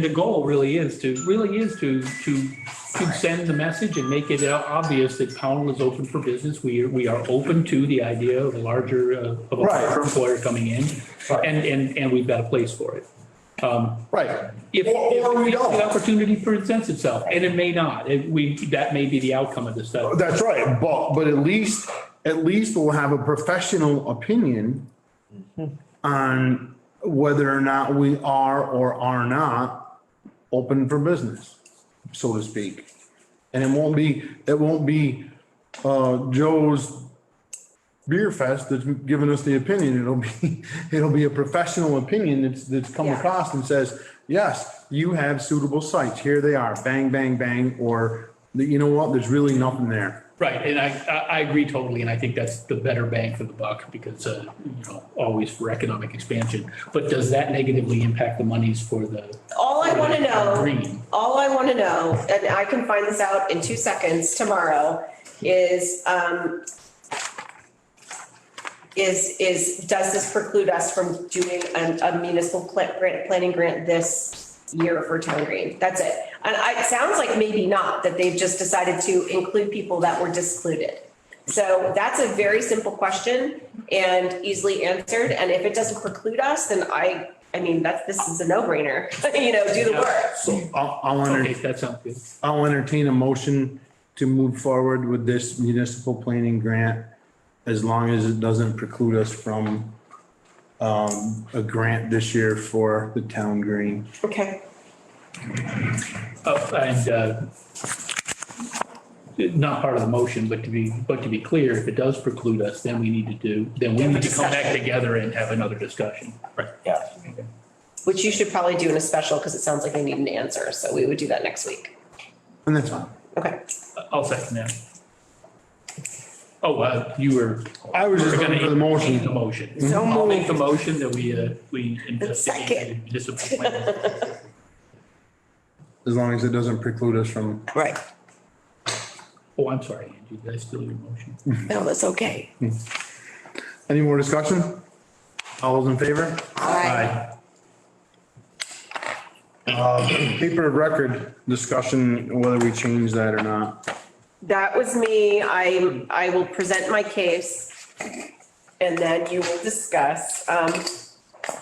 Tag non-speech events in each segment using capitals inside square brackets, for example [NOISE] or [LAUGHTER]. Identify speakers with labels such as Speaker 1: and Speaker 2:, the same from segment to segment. Speaker 1: The goal really is to, really is to, to, to send the message and make it o- obvious that Pownell is open for business. We, are- we are open to the idea of a larger, uh, of a
Speaker 2: Right.
Speaker 1: larger employer coming in.
Speaker 2: Right.
Speaker 1: And, and, and we've got a place for it. Um,
Speaker 2: Right.
Speaker 1: If,
Speaker 2: Or- or we
Speaker 1: if
Speaker 2: don't.
Speaker 1: the opportunity presents itself, and it may not, It- we, that may be the outcome of this stuff.
Speaker 2: That's right, but, but at least, at least we'll have a professional opinion
Speaker 1: Mm-hmm.
Speaker 2: on whether or not we are or are not open for business, so to speak. And it won't be, it won't be, uh, Joe's Beer Fest that's giving us the opinion. It'll be, [LAUGHS] it'll be a professional opinion that's, that's come
Speaker 3: Yeah.
Speaker 2: across and says, yes, you have suitable sites. Here they are, bang, bang, bang, or, you know what, there's really nothing there.
Speaker 1: Right, and I, I, I agree totally, and I think that's the better bang for the buck, because, uh, you know, always for economic expansion. But does that negatively impact the monies for the?
Speaker 3: All I want to know,
Speaker 1: Green.
Speaker 3: all I want to know, and I can find this out in two seconds tomorrow, is, um, is, is, does this preclude us from doing a a municipal pla- grant, planning grant this year for Town Green? That's it. And I- it sounds like maybe not, that they've just decided to include people that were discluded. So that's a very simple question and easily answered. And if it doesn't preclude us, then I, I mean, that's, this is a no brainer, [LAUGHS] you know, do the work.
Speaker 2: So I'll, I'll
Speaker 1: Okay,
Speaker 2: enter,
Speaker 1: that sounds good.
Speaker 2: I'll entertain a motion to move forward with this municipal planning grant as long as it doesn't preclude us from um, a grant this year for the town green.
Speaker 3: Okay.
Speaker 1: Oh, and, uh, not part of the motion, but to be, but to be clear, if it does preclude us, then we need to do, then we
Speaker 3: Have a
Speaker 1: need to come back
Speaker 3: discussion.
Speaker 1: together and have another discussion. Right.
Speaker 4: Yeah.
Speaker 3: Which you should probably do in a special because it sounds like they need an answer. So we would do that next week.
Speaker 2: And that's fine.
Speaker 3: Okay.
Speaker 1: I'll second that. Oh, uh, you were.
Speaker 2: I was just
Speaker 1: we're gonna
Speaker 2: looking for the motion. Mm-hmm.
Speaker 1: entertain The motion.
Speaker 3: So
Speaker 1: I'll make
Speaker 3: moved.
Speaker 1: the motion that we, uh, we investigate
Speaker 3: Second.
Speaker 1: the municipal plan.
Speaker 2: As long as it doesn't preclude us from,
Speaker 5: Right.
Speaker 1: Oh, I'm sorry, Angie, did I steal your motion?
Speaker 5: No, that's okay.
Speaker 2: any more discussion? All those in favor?
Speaker 5: Aye.
Speaker 2: Uh, Paper of record discussion, whether we change that or not.
Speaker 3: That was me. I, I will present my case and then you will discuss. Um,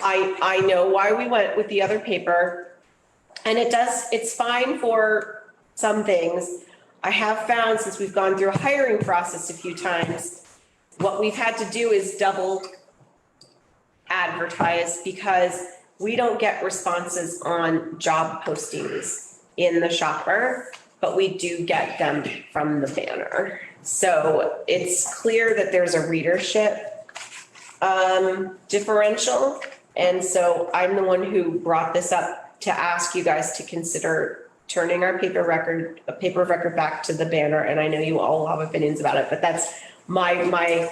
Speaker 3: I, I know why we went with the other paper. And it does, it's fine for some things. I have found since we've gone through a hiring process a few times, what we've had to do is double advertise because we don't get responses on job postings in the shopper, but we do get them from the banner. So it's clear that there's a readership um, differential. And so I'm the one who brought this up to ask you guys to consider turning our paper record, a paper of record back to the banner. And I know you all have opinions about it, but that's my, my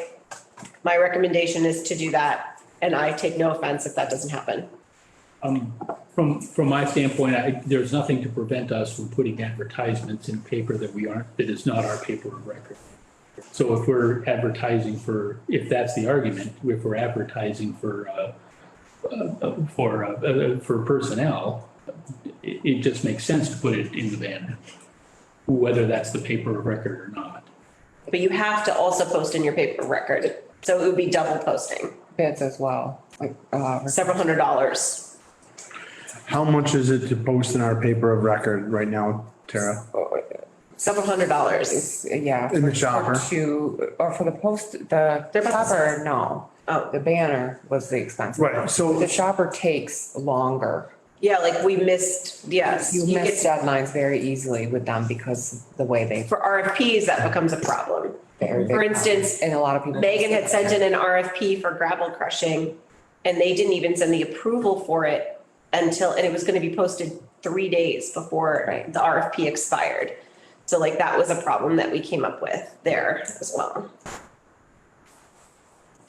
Speaker 3: my recommendation is to do that, and I take no offense if that doesn't happen.
Speaker 1: Um, From, from my standpoint, I, there's nothing to prevent us from putting advertisements in paper that we aren't, that is not our paper of record. So if we're advertising for, if that's the argument, if we're advertising for, uh, uh, for, uh, uh, for personnel, it, it just makes sense to put it in the banner, whether that's the paper of record or not.
Speaker 3: But you have to also post in your paper record, so it would be double posting,
Speaker 5: Bids as well, like, uh,
Speaker 3: several hundred dollars.
Speaker 2: How much is it to post in our paper of record right now, Tara?
Speaker 3: Several hundred dollars.
Speaker 5: yeah.
Speaker 2: In the shopper?
Speaker 5: To, or for the post, the
Speaker 3: Their post-
Speaker 5: shopper, no.
Speaker 3: Oh.
Speaker 5: The banner was the expensive.
Speaker 2: Right, so-
Speaker 5: The shopper takes longer.
Speaker 3: Yeah, like we missed, yes.
Speaker 5: You
Speaker 3: you
Speaker 5: miss
Speaker 3: get-
Speaker 5: deadlines very easily with them because the way they.
Speaker 3: For RFPs, that becomes a problem.
Speaker 5: they're-
Speaker 3: For instance,
Speaker 5: And a lot of people.
Speaker 3: Megan had sent in an RFP for gravel crushing, and they didn't even send the approval for it until, and it was gonna be posted three days before
Speaker 5: Right.
Speaker 3: the RFP expired. So like that was a problem that we came up with there as well.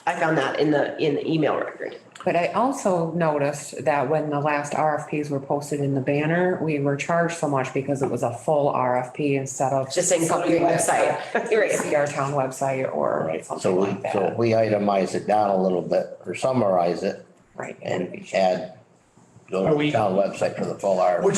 Speaker 3: I found that in the, in the email record.
Speaker 5: But I also noticed that when the last RFPs were posted in the banner, we were charged so much because it was a full RFP instead of.
Speaker 3: Just saying, go to your
Speaker 5: something
Speaker 3: website.
Speaker 5: that-
Speaker 3: You're right.
Speaker 5: See our town website or
Speaker 4: Right, so
Speaker 5: something
Speaker 4: we,
Speaker 5: like
Speaker 4: so if
Speaker 5: that.
Speaker 4: we itemize it down a little bit or summarize it
Speaker 5: Right.
Speaker 4: and add go
Speaker 1: Are
Speaker 4: to
Speaker 1: we-
Speaker 4: the town website for the full article.
Speaker 2: Which